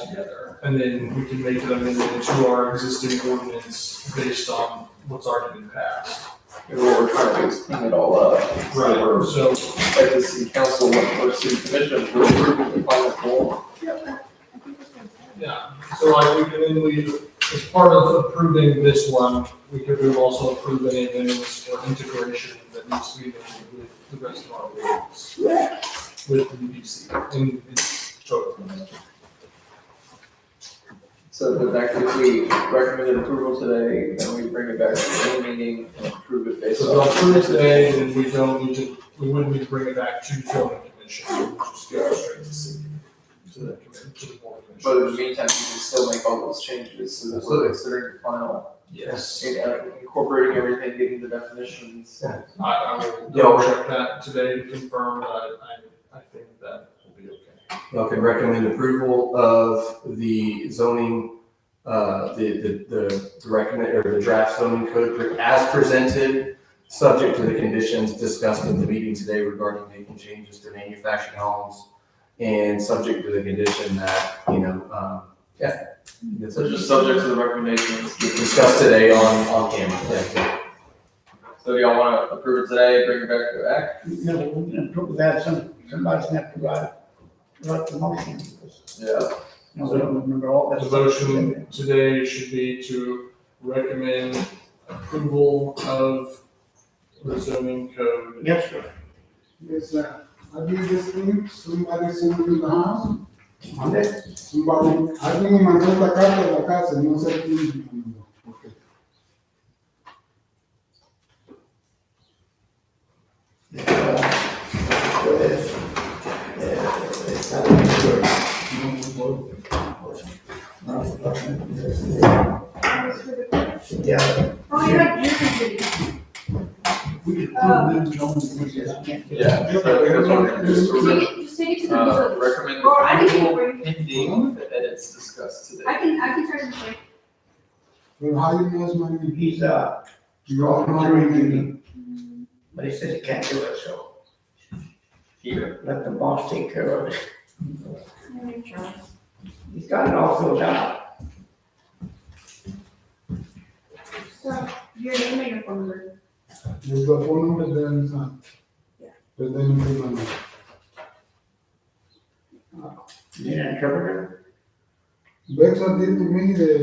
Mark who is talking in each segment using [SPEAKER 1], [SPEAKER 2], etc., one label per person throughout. [SPEAKER 1] altogether, and then we can make them into our existing ordinance based on what's already been passed.
[SPEAKER 2] And what we're trying to do is clean it all up. Or
[SPEAKER 1] So,
[SPEAKER 2] like the city council went for city commission for approving the final form.
[SPEAKER 1] yeah, so like, we can, then we, as part of approving this one, we could have also approved any amendments or integration that needs to be made with the rest of our ordinance. With the UDC, in its total.
[SPEAKER 2] So the fact that we recommended approval today, then we bring it back to the meeting and approve it based
[SPEAKER 1] So
[SPEAKER 2] on.
[SPEAKER 1] they'll approve it today, and we don't need to, we wouldn't need to bring it back to the zoning commission, we'll just go straight to city. To the commi- to the board
[SPEAKER 2] But in the
[SPEAKER 1] commission.
[SPEAKER 2] meantime, you can still make all those changes, so that we're considering the final,
[SPEAKER 1] Yes,
[SPEAKER 2] and, uh, incorporating everything, getting the definitions.
[SPEAKER 1] I, I will double check that today to confirm, but I, I, I think that will be okay.
[SPEAKER 3] Y'all can recommend approval of the zoning, uh, the, the, the recommend, or the draft zoning code as presented, subject to the conditions discussed in the meeting today regarding making changes to manufactured homes, and subject to the condition that, you know, um, yeah. that's
[SPEAKER 2] So
[SPEAKER 3] it.
[SPEAKER 2] just subject to the recommendations.
[SPEAKER 3] Discussed today on, on camera, yeah.
[SPEAKER 2] So y'all wanna approve it today, bring it back to act?
[SPEAKER 4] No, we're gonna put that, some, somebody's gonna have to write, write the motion. because,
[SPEAKER 2] Yeah.
[SPEAKER 4] You know, we don't remember all that.
[SPEAKER 1] The motion today should be to recommend approval of the zoning code.
[SPEAKER 4] Yes, sir.
[SPEAKER 5] Yes, sir. I did this thing, somebody sent me to the house,
[SPEAKER 4] Monday?
[SPEAKER 5] somebody, I think my son, la casa, la casa, no sé quién. Okay.
[SPEAKER 6] Oh, you're right, you're contributing.
[SPEAKER 4] We could
[SPEAKER 6] Uh,
[SPEAKER 4] put them on, we just can't.
[SPEAKER 2] Yeah. so that's what we're gonna do, so
[SPEAKER 6] Just
[SPEAKER 2] we're
[SPEAKER 6] take
[SPEAKER 2] gonna,
[SPEAKER 6] it, just take it to the
[SPEAKER 2] Uh,
[SPEAKER 6] village.
[SPEAKER 2] recommend
[SPEAKER 6] Or I can,
[SPEAKER 2] approval
[SPEAKER 6] bring-
[SPEAKER 2] pending the edits discussed
[SPEAKER 6] I
[SPEAKER 2] today.
[SPEAKER 6] can, I can try to check.
[SPEAKER 5] Well, how you know it's my name?
[SPEAKER 4] He's, uh,
[SPEAKER 5] You all know my name.
[SPEAKER 4] but he says he can't do it, so
[SPEAKER 2] Here.
[SPEAKER 4] let the boss take care of it.
[SPEAKER 6] Let me try.
[SPEAKER 4] He's got it all filled out.
[SPEAKER 6] So, your name and your phone number.
[SPEAKER 5] There's a phone number there and son.
[SPEAKER 6] Yeah.
[SPEAKER 5] But then you can,
[SPEAKER 4] You didn't interpret
[SPEAKER 5] Bexa did to me, they, they,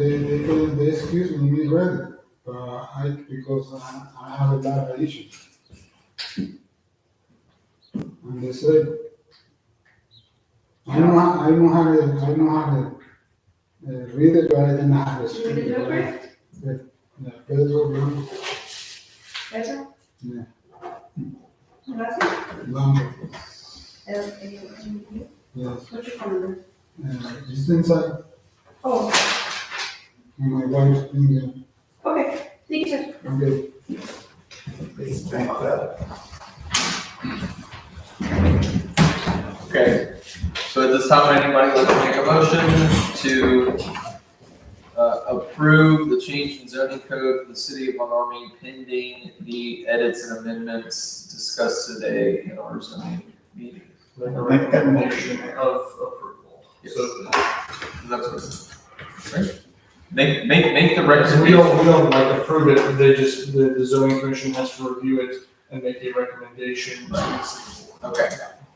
[SPEAKER 5] they, they, told- they excuse me, me ready. Uh, I, because I, I have a lot of issues. And they said, I don't, ha- I don't have, a- I don't have, a, uh, read it, but I didn't have
[SPEAKER 6] You
[SPEAKER 5] a
[SPEAKER 6] want to
[SPEAKER 5] speaker.
[SPEAKER 6] do it first?
[SPEAKER 5] Yeah, Pedro,
[SPEAKER 6] That's all?
[SPEAKER 5] Yeah.
[SPEAKER 6] And that's it?
[SPEAKER 5] Lambo,
[SPEAKER 6] And- and you- and you-
[SPEAKER 5] yes.
[SPEAKER 6] What's your phone number?
[SPEAKER 5] Uh, just inside,
[SPEAKER 6] Oh,
[SPEAKER 5] my wife's finger,
[SPEAKER 6] okay, thank you. sir.
[SPEAKER 5] okay.
[SPEAKER 2] Okay, so at this time, would anybody like to make a motion to uh, approve the change in zoning code for the city of Von Army pending the edits and amendments discussed today in our zoning meeting?
[SPEAKER 1] Make a
[SPEAKER 4] Make that
[SPEAKER 1] recommendation of approval.
[SPEAKER 2] Yes.
[SPEAKER 1] So
[SPEAKER 2] That's what, right? Make, make, make the
[SPEAKER 1] So we don't,
[SPEAKER 2] recommendation.
[SPEAKER 1] we don't like approve it, they just, the, the zoning commission has to review it and make a recommendation. to the city board.
[SPEAKER 2] Okay,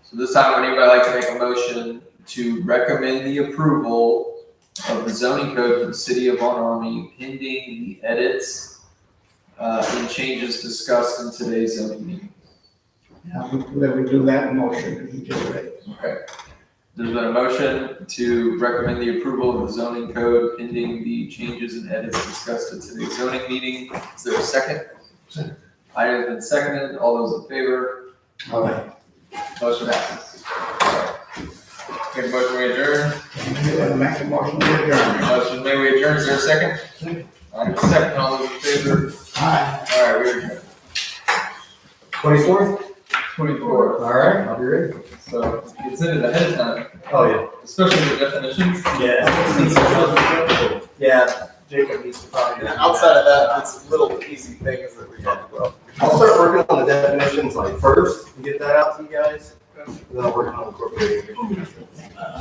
[SPEAKER 2] so this time, would anybody like to make a motion to recommend the approval of the zoning code for the city of Von Army pending the edits uh, and changes discussed in today's zoning meeting?
[SPEAKER 4] it. Let me do that motion, he just read it.
[SPEAKER 2] Okay. There's been a motion to recommend the approval of the zoning code pending the changes and edits discussed at today's zoning meeting. Is there a second?
[SPEAKER 4] Second.
[SPEAKER 2] Item has been seconded. All those in favor?
[SPEAKER 4] All right.
[SPEAKER 2] Motion passes. Okay, motion we adjourn.
[SPEAKER 4] Make the motion, we're adjourned.
[SPEAKER 2] Motion may we adjourn. Is there a second?
[SPEAKER 4] Second.
[SPEAKER 2] Item second. All those in favor?
[SPEAKER 4] All right.
[SPEAKER 2] All right, we adjourn.
[SPEAKER 3] Twenty-fourth,
[SPEAKER 2] Twenty-four.
[SPEAKER 3] all right, I'll be ready.
[SPEAKER 2] So consider it ahead of time,
[SPEAKER 3] Oh,
[SPEAKER 2] especially the definitions.
[SPEAKER 3] yeah. Yeah. Yeah, Jacob needs to probably.
[SPEAKER 7] of that, it's little easy things that we talk about.
[SPEAKER 3] I'll start working on the definitions like first and get that out to you guys. and Then I'll work on incorporating it.